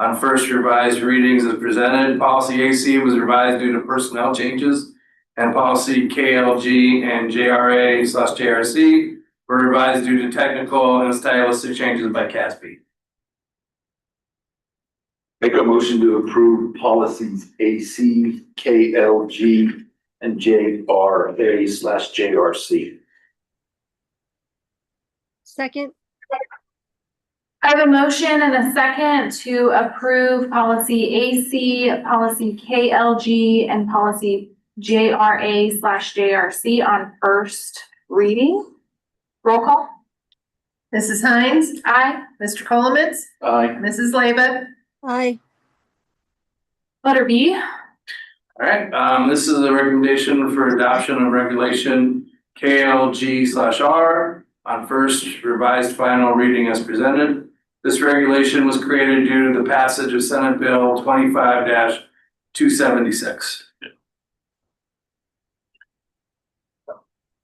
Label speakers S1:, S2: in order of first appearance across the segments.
S1: on first revised readings as presented. Policy AC was revised due to personnel changes. And policy KLG and JRA slash JRC were revised due to technical and stylistic changes by CASB.
S2: Make a motion to approve policies AC, KLG, and JRA slash JRC.
S3: Second,
S4: I have a motion and a second to approve policy AC, policy KLG, and policy JRA slash JRC on first reading. Roll call.
S5: Mrs. Hines,
S4: Aye.
S5: Mr. Colomans,
S2: Aye.
S5: Mrs. Laba,
S3: aye,
S4: Letter B.
S1: Alright, um, this is a recommendation for adoption of regulation KLG slash R on first revised final reading as presented. This regulation was created due to the passage of Senate Bill twenty-five two seventy-six.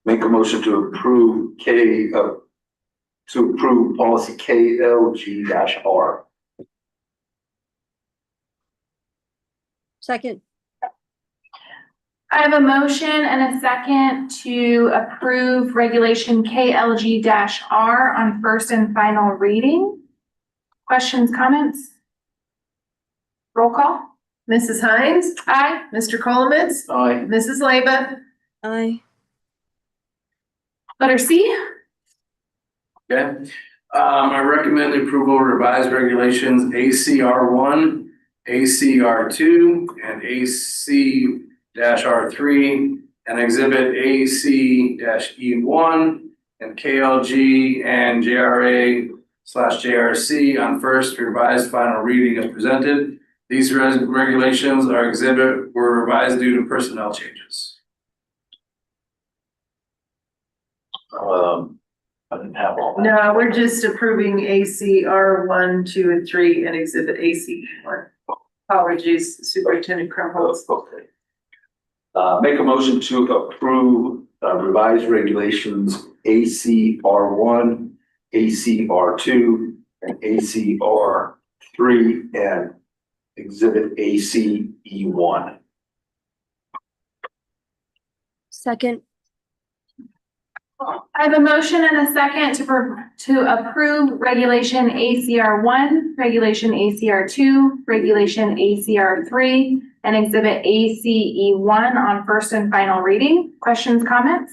S2: Make a motion to approve K, uh, to approve policy KLG dash R.
S3: second,
S4: I have a motion and a second to approve regulation KLG R on first and final reading. Questions, comments? Roll call.
S5: Mrs. Hines,
S4: Aye.
S5: Mr. Colomans,
S2: Aye.
S5: Mrs. Laba,
S3: aye,
S4: Letter C.
S1: Okay, um, I recommend the approval of revised regulations ACR one, ACR two, and AC R three, and exhibit AC E one, and KLG and JRA slash JRC on first revised final reading as presented. These res- regulations are exhibit were revised due to personnel changes.
S2: Um, I didn't have all that.
S5: No, we're just approving ACR one, two, and three, and exhibit AC one. Apologies, Superintendent Crumholz.
S2: Okay. Uh, make a motion to approve uh, revised regulations ACR one, ACR two, and ACR three, and exhibit ACE one.
S3: second,
S4: I have a motion and a second to, pro- to approve regulation ACR one, regulation ACR two, regulation ACR three, and exhibit ACE one on first and final reading. Questions, comments?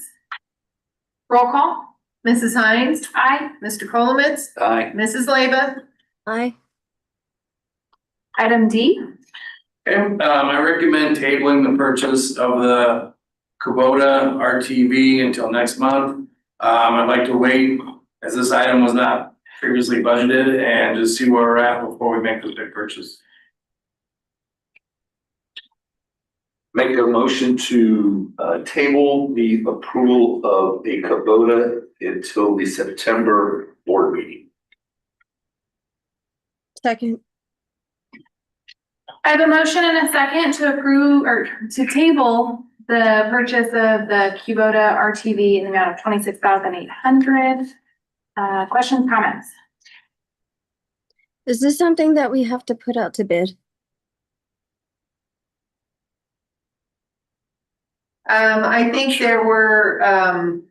S4: Roll call.
S5: Mrs. Hines,
S4: Aye.
S5: Mr. Colomans,
S2: Aye.
S5: Mrs. Laba,
S3: aye,
S4: Item D.
S1: Okay, um, I recommend tabling the purchase of the Kubota RTV until next month. Um, I'd like to wait, as this item was not previously budgeted, and just see where we're at before we make this big purchase.
S2: Make a motion to uh table the approval of a Kubota until the September board meeting.
S3: second,
S4: I have a motion and a second to approve or to table the purchase of the Kubota RTV in the amount of twenty-six thousand eight hundred. Uh, questions, comments?
S3: is this something that we have to put out to bid?
S5: Um, I think there were, um,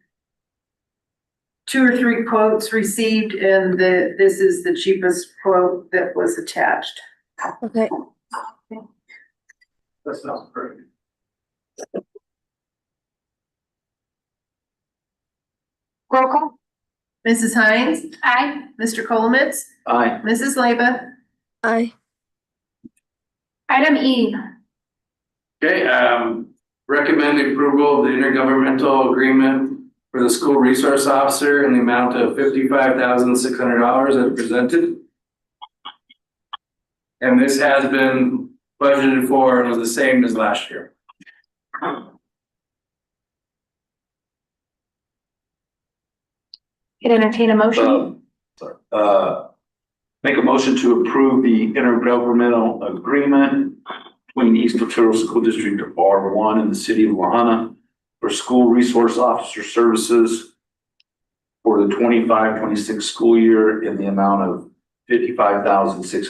S5: two or three quotes received, and the, this is the cheapest quote that was attached.
S3: Okay,
S1: That sounds perfect.
S4: Roll call.
S5: Mrs. Hines,
S4: Aye.
S5: Mr. Colomans,
S2: Aye.
S5: Mrs. Laba,
S3: aye,
S4: Item E.
S1: Okay, um, recommend the approval of the intergovernmental agreement for the school resource officer in the amount of fifty-five thousand six hundred dollars as presented. And this has been budgeted for and was the same as last year.
S4: Could entertain a motion.
S2: Um, sorry, uh, make a motion to approve the intergovernmental agreement between East Pottero School District R one and the city of Lahana for school resource officer services for the 25-26 school year in the amount of fifty-five thousand, six hundred